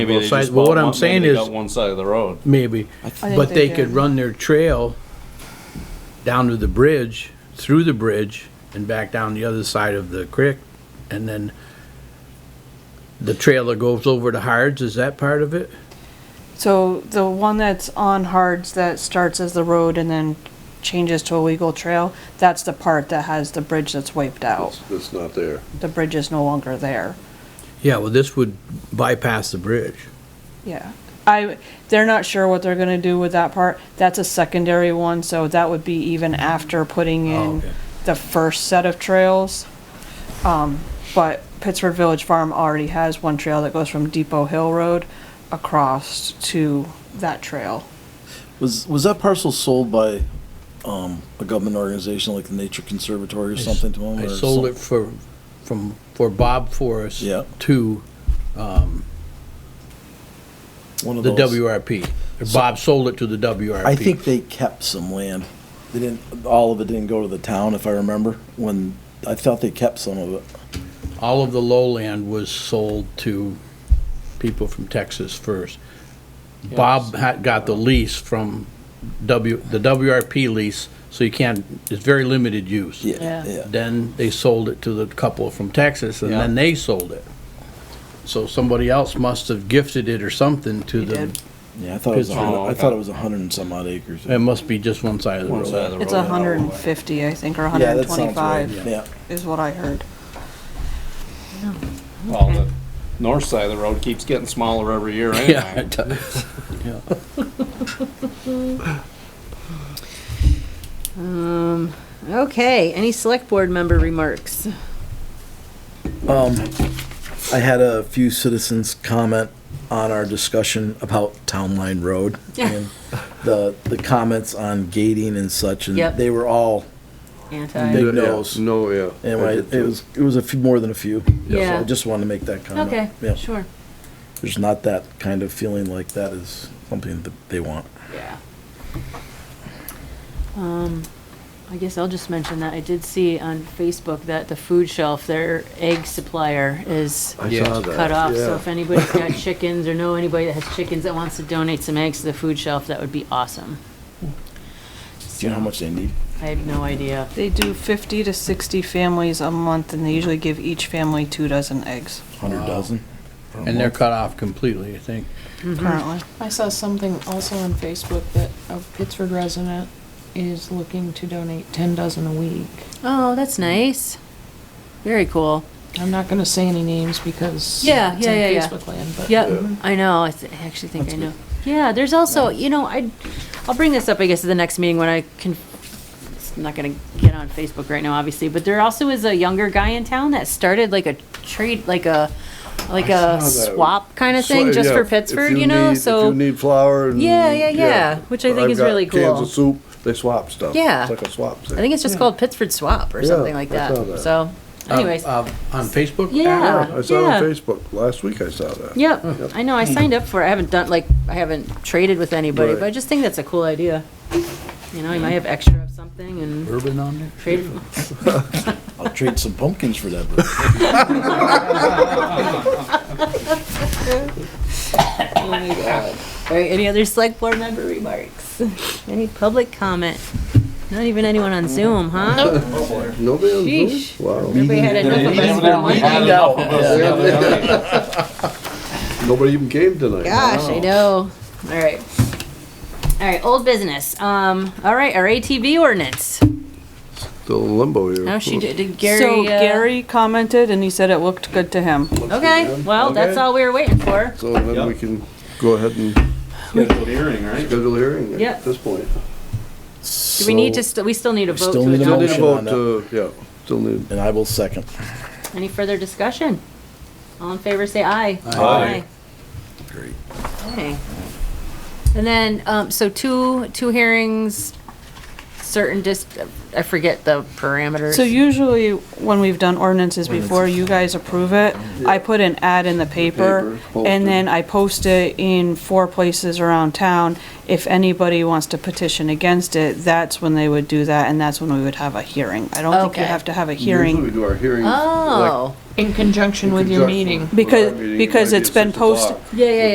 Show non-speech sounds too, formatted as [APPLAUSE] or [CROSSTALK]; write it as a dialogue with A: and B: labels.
A: Maybe
B: Well,
A: they
B: side-
A: just
B: well, what
A: bought
B: I'm
A: one- maybe
B: saying
A: they
B: is-
A: got one side of the road.
B: maybe.
C: think
B: But they
C: they
B: could
C: can.
B: run their trail down to the bridge, through the bridge, and back down the other side of the creek, and then the trail that goes over to Hards, is that part of it?
C: So the one that's on Hards that starts as the road and then changes to a legal trail, that's the part that has the bridge that's wiped out.
D: It's not there.
C: The bridge is no longer there.
B: Yeah, well, this would bypass the bridge.
C: Yeah. I, they're not sure what they're gonna do with that part. That's a secondary one, so that would be even after putting
B: Oh,
C: in
B: okay.
C: the first set of trails. Um, but Pittsford Village Farm already has one trail that goes from Depot Hill Road across to that trail.
E: Was was that parcel sold by um, a government organization like the Nature Conservatory or something to them?
B: I
E: or
B: sold
E: some-
B: it for, from, for Bob Forrest
E: Yeah.
B: to
E: One of
B: the
E: those.
B: WRP. Or Bob sold it to the WRP.
E: I think they kept some land. They didn't. All of it didn't go to the town, if I remember. When I thought they kept some of it.
B: all of the lowland was sold to people from Texas first. Bob had, got the lease from W, the WRP lease, so you can't, it's very limited use.
C: Yeah.
E: Yeah, yeah.
B: Then they sold it to the couple from Texas, and then
A: Yeah.
B: they sold it. So somebody else must have gifted it or something to
C: He
B: the,
C: did.
E: Yeah, I thought it was. a
B: Pittsburgh.
E: hundred-
A: Oh,
E: I
A: okay.
E: thought it was a hundred and some odd acres.
B: it must be just one side of the
A: One side of
B: road.
A: the
C: It's
A: road.
C: hundred and fifty, I think, or
E: yeah,
C: hundred and
E: that sounds right.
C: twenty-five
E: Yeah.
C: is what I heard.
A: Well, the north side of the road keeps getting smaller every year
B: [LAUGHS] [LAUGHS] Yeah,
A: anyway.
B: it does. Yeah.
F: Um, okay, any select board member remarks?
E: Um, I had a few citizens comment on our discussion about Town Line Road.
F: Yeah.
E: and The, the comments on gating and such, and
F: Yep.
E: they were all
F: Anti.
E: big no's.
D: No, yeah.
E: And I- it was, it was a few, more than a few. So I just wanted to make that comment.
F: Okay,
E: Yeah,
F: sure.
E: there's not that kind of feeling like that is something that they want.
F: Yeah. Um, I guess I'll just mention that I did see on Facebook that the food shelf, their egg supplier is
D: I
B: Yeah.
D: saw that.
F: cut off. So
D: yeah.
F: if anybody's
D: [LAUGHS]
F: got chickens or know anybody that has chickens that wants to donate some eggs to the food shelf, that would be awesome.
E: Do you know how much they need?
F: I have no idea.
C: They do fifty to sixty families a month and they usually give each family two dozen eggs
E: Hundred dozen?
B: And they're cut off completely, I think.
C: currently.
G: Mm-hmm. I saw something also on Facebook that a Pittsford resident is looking to donate ten dozen a week.
F: Oh, that's nice. Very cool.
G: I'm not gonna say any names because
F: Yeah,
G: it's
F: yeah,
G: in
F: yeah, yeah.
G: Facebook land, but
F: Yep, I know, I th- I actually think I know. Yeah, there's also, you know, I, I'll bring this up, I guess, at the next meeting when I can, it's not gonna get on Facebook right now, obviously, but there also is a younger guy in town that started like a trade, like a, like
D: I
F: a
D: saw that.
F: swap kind of thing,
D: So,
F: just
D: yeah,
F: for
D: if
F: Pittsburgh, you know,
D: need- If you
F: so,
D: need flour and.
F: Yeah, yeah, yeah, which I think
D: I've
F: is
D: got
F: really
D: Cans
F: cool.
D: of soup, they swap stuff.
F: Yeah.
D: It's like a swap
F: I
D: thing.
F: think it's just called Pittsford Swap or
D: Yeah,
F: something like
D: I saw
F: that,
D: that. Um,
F: so, anyways.
B: Uh, uh, On Facebook?
F: Yeah.
D: Yeah, I saw it
F: yeah.
D: on Facebook, last week I saw that.
F: Yep, I know, I signed up for it, I haven't done, like, I haven't traded with anybody, but I
D: Right.
F: just think that's a cool idea. You know, you might have extra of something and
B: Urban on there?
F: trade.
E: I'll trade some pumpkins for that. but-
F: Oh All right, any other select board member remarks? [LAUGHS] Any public comment? Not even anyone on Zoom, huh?
D: Nobody on
F: Sheesh.
D: Zoom? Wow.
F: Everybody had enough of us for one night.
D: Nobody even came tonight.
F: Gosh, I know. All right. All right, old business. Um, all right, our ATV ordinance.
D: Still in limbo here.
F: No, she did, did Gary.
C: So
F: uh,
C: Gary commented and he said it looked good to him.
F: Okay, well, that's all we were waiting for.
D: So then we can go ahead and
A: Scheduled hearing, right?
D: schedule a hearing
F: Yep.
D: at this point.
F: Do we need to, st- we still need a vote
E: Still
F: to
E: need a
D: Still
F: adopt?
D: need a
E: Motion on
D: vote to, yeah, still need,
E: And I will second.
F: Any further discussion? All in favor, say aye.
A: Aye.
E: Great.
F: Okay. And then, um, so two, two hearings, certain dis, I forget the parameters.
C: So usually when we've done ordinances before, you guys approve it. I put an ad in the paper
D: Paper,
C: and then I post it in four places around town. If anybody wants to petition against it, that's when they would do that and that's when we would have a hearing. I don't think you
F: Okay.
C: have to have a
D: usually
C: hearing
D: we do our hearings. like,
F: Oh,
G: in conjunction
D: in
G: with your
D: conjunction
G: meeting.
D: with our
C: Because-
D: meeting, it
C: because
D: might be
C: it's
D: at
C: been
D: six o'clock.
C: posted-
F: yeah, yeah,